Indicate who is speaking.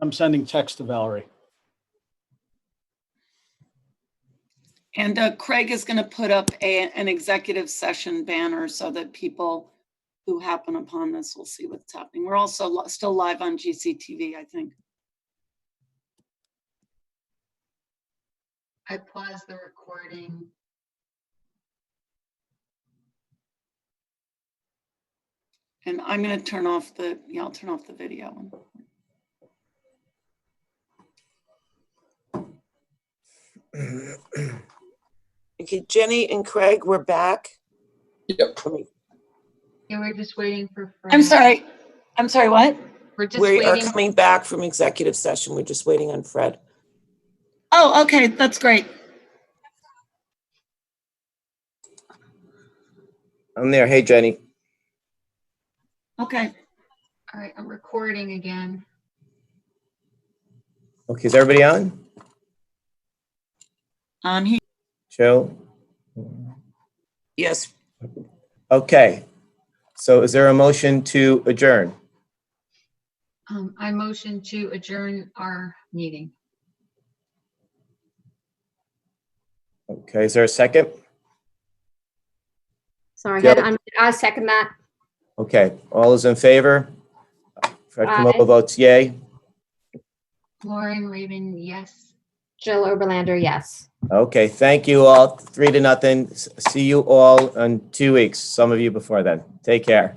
Speaker 1: I'm sending text to Valerie.
Speaker 2: And uh, Craig is going to put up a, an executive session banner so that people who happen upon this will see what's happening. We're also li- still live on GCTV, I think.
Speaker 3: I paused the recording.
Speaker 2: And I'm going to turn off the, yeah, I'll turn off the video.
Speaker 4: Okay, Jenny and Craig, we're back.
Speaker 5: Yep.
Speaker 4: Let me-
Speaker 3: Yeah, we're just waiting for.
Speaker 2: I'm
Speaker 3: Fran.
Speaker 2: sorry. I'm sorry, what?
Speaker 3: We're just
Speaker 4: We are
Speaker 3: waiting.
Speaker 4: coming back from executive session. We're just waiting on Fred.
Speaker 2: Oh, okay, that's great.
Speaker 6: I'm there. Hey, Jenny.
Speaker 2: Okay.
Speaker 3: All right, I'm recording again.
Speaker 6: Okay, is everybody on?
Speaker 2: Um, he,
Speaker 6: Joe?
Speaker 4: Yes,
Speaker 6: Okay. So is there a motion to adjourn?
Speaker 3: Um, I motion to adjourn our meeting.
Speaker 6: Okay, is there a second?
Speaker 7: Sorry,
Speaker 6: Yeah.
Speaker 7: had to unmute. I second that.
Speaker 6: Okay, all is in favor? Fred
Speaker 7: Aye.
Speaker 6: Camillo votes yay.
Speaker 3: Lauren Raven, yes.
Speaker 7: Jill Oberlander, yes.
Speaker 6: Okay, thank you all. Three to nothing. S- See you all in two weeks, some of you before then. Take care.